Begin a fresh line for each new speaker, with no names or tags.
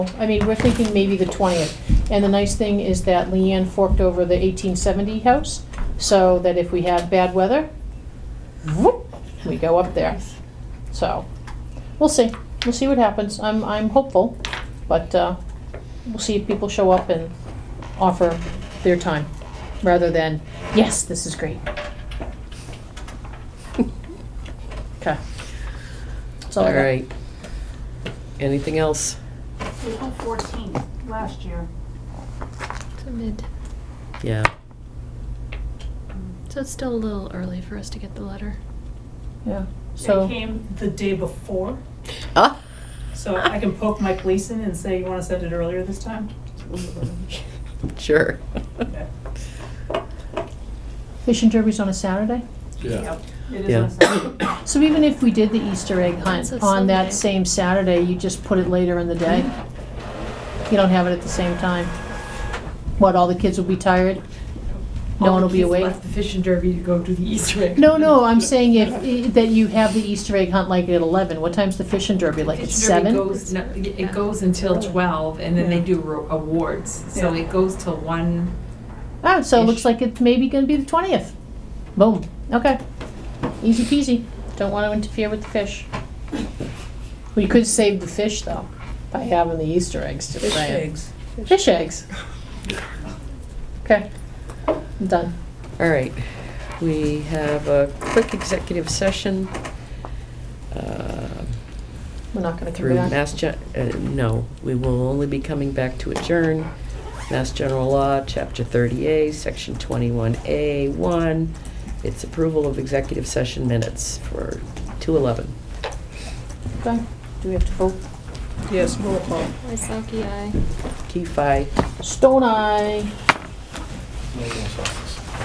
I mean, we're thinking maybe the twentieth. And the nice thing is that Leanne forked over the eighteen seventy house, so that if we have bad weather, whoop, we go up there. So, we'll see, we'll see what happens. I'm, I'm hopeful, but, uh, we'll see if people show up and offer their time, rather than, yes, this is great. Okay. That's all I
All
got.
right. Anything else?
April fourteenth, last year.
It's a mid.
Yeah.
So it's still a little early for us to get the letter.
Yeah,
They
so.
came the day before,
Ah.
so I can poke Mike Gleason and say, you wanna send it earlier this time?
Sure.
Okay.
Fish and Derby's on a Saturday?
Yeah.
Yep, It
Yeah.
is on Saturday.
So even if we did the Easter egg hunt
It's a
on that
Sunday.
same Saturday, you just put it later in the day? You don't have it at the same time? What, all the kids will be tired? No one will be awake?
Left the fish and derby to go do the Easter egg.
No, no, I'm saying if, i- that you have the Easter egg hunt like at eleven, what time's the Fish and Derby, like at
Fish and Derby
seven?
goes- no, It goes until twelve, and then they do ro- awards, so
Yeah.
it goes till one.
Ah, so it looks
Ish.
like it's maybe gonna be the twentieth. Boom, okay. Easy peasy, don't wanna interfere with the fish. We could save the fish though, by having the Easter eggs, just saying. Fish eggs. Okay, I'm done.
All right. We have a quick executive session uh,
We're not gonna
through
come back.
Mass, Gen- uh, no, we will only be coming back to adjourn. Mass General Law, Chapter 30A, Section 21A1. It's approval of executive session minutes for 2:11.
Okay. Do we have to vote?
Yes, roll call.
Waisaki, aye.
Key fi
Stone eye.
No, no, sorry.